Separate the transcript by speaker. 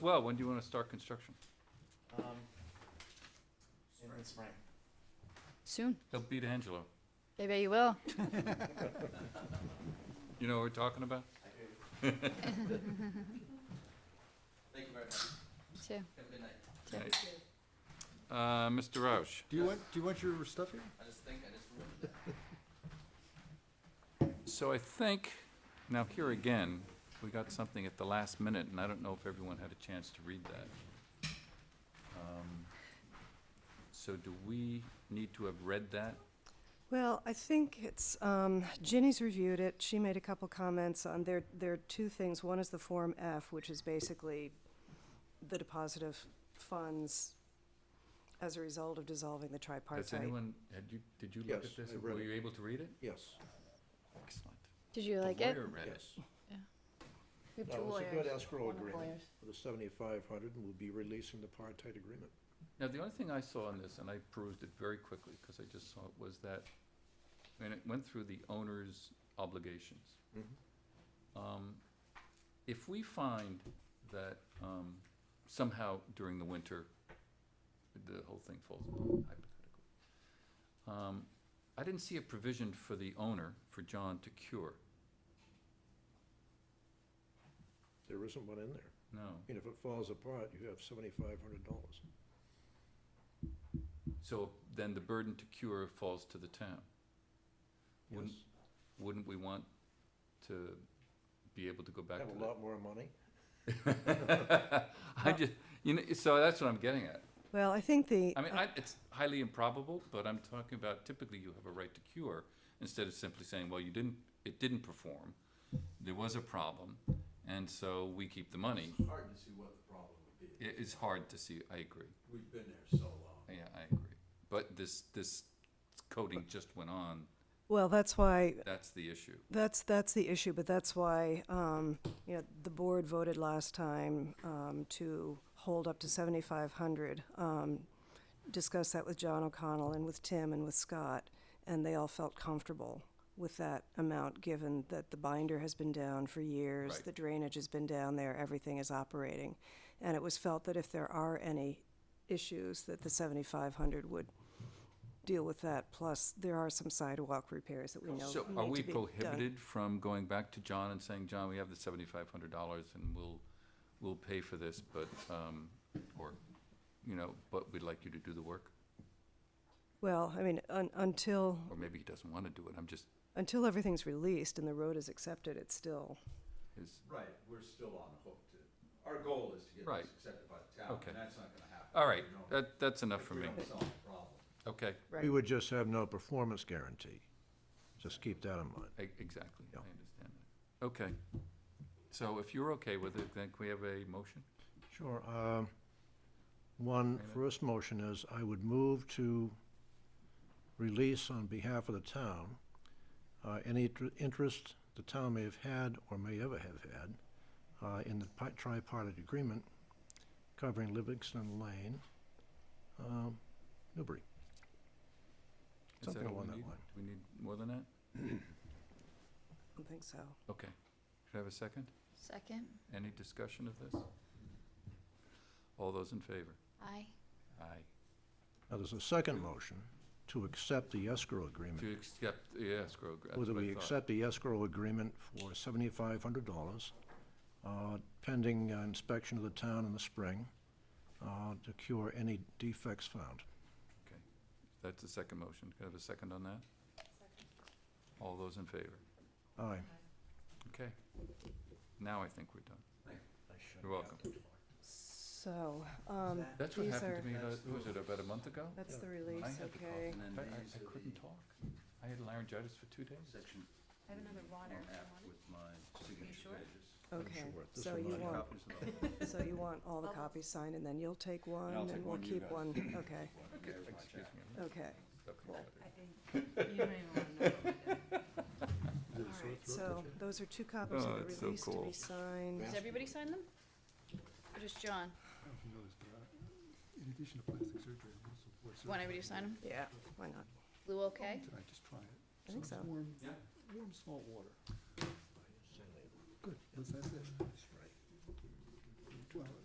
Speaker 1: Well, when do you want to start construction?
Speaker 2: Um, in the spring.
Speaker 3: Soon.
Speaker 1: He'll beat Angelo.
Speaker 3: I bet you will.
Speaker 1: You know what we're talking about?
Speaker 2: I do. Thank you very much.
Speaker 3: Too.
Speaker 2: Have a good night.
Speaker 3: Yeah.
Speaker 1: Right. Uh, Mr. Roush,
Speaker 4: Do you want, do you want your stuff here?
Speaker 2: I just think I just ruined it.
Speaker 1: so I think, now here again, we got something at the last minute, and I don't know if everyone had a chance to read that. Um, So do we need to have read that?
Speaker 5: Well, I think it's, um, Ginny's reviewed it, she made a couple comments on, there, there are two things. One is the Form F, which is basically the deposit of funds as a result of dissolving the
Speaker 1: Has
Speaker 5: tripartite.
Speaker 1: anyone, had you, did you look
Speaker 4: Yes,
Speaker 1: at this?
Speaker 4: I read
Speaker 1: Were
Speaker 4: it.
Speaker 1: you able to read it?
Speaker 4: Yes.
Speaker 1: Excellent.
Speaker 3: Did you
Speaker 1: The
Speaker 3: like it?
Speaker 1: lawyer read it.
Speaker 3: We have
Speaker 4: That
Speaker 3: two
Speaker 4: was Oh, a good
Speaker 3: lawyers.
Speaker 4: escrow
Speaker 3: One of the
Speaker 4: agreement
Speaker 3: lawyers.
Speaker 4: for the seventy-five hundred, and we'll be releasing the apartheid agreement.
Speaker 1: Now, the only thing I saw in this, and I perused it very quickly, because I just saw it, was that, and it went through the owner's obligations. Um, If we find that um, somehow during the winter, the whole thing falls apart, hypothetically. um, I didn't see a provision for the owner, for John, to cure.
Speaker 4: There isn't one in there.
Speaker 1: No.
Speaker 4: And if it falls apart, you have seventy-five hundred dollars.
Speaker 1: So then the burden to cure falls to the town.
Speaker 4: Yes.
Speaker 1: Wouldn't- Wouldn't we want to be able to go back to
Speaker 4: Have
Speaker 1: that?
Speaker 4: a lot more money.
Speaker 1: I just, you know, so that's what I'm getting at.
Speaker 5: Well, I think the, uh,
Speaker 1: I mean, I, it's highly improbable, but I'm talking about typically you have a right to cure instead of simply saying, well, you didn't, it didn't perform, there was a problem, and so we keep the money.
Speaker 6: It's hard to see what the problem would be.
Speaker 1: It is hard to see, I agree,
Speaker 6: We've been there so long.
Speaker 1: yeah, I agree. But this, this coding just went on,
Speaker 5: well, that's why,
Speaker 1: that's the issue.
Speaker 5: That's, that's the issue, but that's why, um, you know, the board voted last time, um, to hold up to seventy-five hundred. Um, discussed that with John O'Connell and with Tim and with Scott, and they all felt comfortable with that amount, given that the binder has been down for years,
Speaker 1: Right.
Speaker 5: the drainage has been down there, everything is operating. And it was felt that if there are any issues, that the seventy-five hundred would deal with that, plus there are some sidewalk repairs that we know need
Speaker 1: So
Speaker 5: to be uh, done.
Speaker 1: are we prohibited from going back to John and saying, John, we have the seventy-five hundred dollars and we'll, we'll pay for this, but, um, or, you know, but we'd like you to do the work?
Speaker 5: Well, I mean, un- until,
Speaker 1: Or maybe he doesn't wanna do it, I'm just,
Speaker 5: until everything's released and the road is accepted, it's still,
Speaker 1: is,
Speaker 6: Right, we're still on the hook to, our goal is to get
Speaker 1: Right.
Speaker 6: this accepted by the town,
Speaker 1: Okay.
Speaker 6: and that's not gonna happen.
Speaker 1: all
Speaker 6: if
Speaker 1: right,
Speaker 6: we don't-
Speaker 1: that, that's enough
Speaker 6: if
Speaker 1: for
Speaker 6: we
Speaker 1: me,
Speaker 6: don't solve the problem.
Speaker 1: okay,
Speaker 3: Right.
Speaker 4: We would just have no performance guarantee. Just keep that in mind.
Speaker 1: e- exactly, I
Speaker 4: Yeah.
Speaker 1: understand that, okay. So if you're okay with it, then can we have a motion?
Speaker 4: Sure. um,
Speaker 1: Wait a
Speaker 4: One,
Speaker 1: minute.
Speaker 4: first motion is I would move to release on behalf of the town uh, any tr- interest the town may have had or may ever have had uh, in the pi- tripartite agreement covering Livingston Lane, um, Newbury.
Speaker 1: Is
Speaker 4: Something
Speaker 1: that all we
Speaker 4: along that
Speaker 1: need?
Speaker 4: line.
Speaker 1: Do we need more than that?
Speaker 5: I don't think so.
Speaker 1: Okay, should I have a second?
Speaker 3: Second.
Speaker 1: Any discussion of this? All those in favor?
Speaker 3: Aye.
Speaker 1: Aye.
Speaker 4: Now, there's a second motion to accept the escrow agreement.
Speaker 1: To accept the escrow, that's
Speaker 4: whether
Speaker 1: what I
Speaker 4: we
Speaker 1: thought.
Speaker 4: accept the escrow agreement for seventy-five hundred dollars, pending uh, inspection of the town in the spring, uh, to cure any defects found.
Speaker 1: Okay, that's the second motion. Can I have a second on that? All those in favor?
Speaker 4: Aye.
Speaker 1: Okay. Now I think we're done. You're welcome.
Speaker 5: So, um,
Speaker 1: That's what
Speaker 5: These
Speaker 1: happened
Speaker 5: are-
Speaker 1: to me, about- was it about a month ago?
Speaker 5: that's the
Speaker 1: I
Speaker 5: release,
Speaker 1: had the cough,
Speaker 5: okay.
Speaker 1: and
Speaker 6: And
Speaker 1: I,
Speaker 6: then
Speaker 1: I-
Speaker 6: these
Speaker 1: I
Speaker 6: are
Speaker 1: couldn't
Speaker 6: the
Speaker 1: talk. I had laryngitis for two days.
Speaker 6: Section
Speaker 7: I have another water if you
Speaker 6: F
Speaker 7: want it.
Speaker 6: with my signature
Speaker 7: sure?
Speaker 6: pages.
Speaker 5: Okay,
Speaker 4: sure this
Speaker 5: so
Speaker 4: will
Speaker 5: you
Speaker 4: not
Speaker 5: want,
Speaker 6: Copies of all.
Speaker 5: so you want all the
Speaker 7: I'll-
Speaker 5: copies signed, and then you'll take one,
Speaker 6: I'll take
Speaker 5: and we'll
Speaker 6: one, you
Speaker 5: keep
Speaker 6: guys.
Speaker 5: one, okay,
Speaker 6: Okay, there's my
Speaker 1: Excuse
Speaker 6: check.
Speaker 1: me. I'm
Speaker 5: okay.
Speaker 1: stuck in
Speaker 5: Cool.
Speaker 1: water.
Speaker 7: I think, you don't even want to know. what we did. All right.
Speaker 5: So, those are two copies
Speaker 1: Oh,
Speaker 5: of
Speaker 1: it's so
Speaker 5: the release to
Speaker 1: cool.
Speaker 5: be signed.
Speaker 3: Does everybody sign them? Or just John?
Speaker 8: uh, In addition to plastic surgery, I'm also board certified
Speaker 3: Want everybody to sign them?
Speaker 5: Yeah, why not?
Speaker 3: Blue okay?
Speaker 8: in- Did I just try it?
Speaker 5: I think
Speaker 8: it's
Speaker 5: so.
Speaker 8: Warm,
Speaker 6: Yeah.
Speaker 8: warm salt water. Good, that's that's it. Well,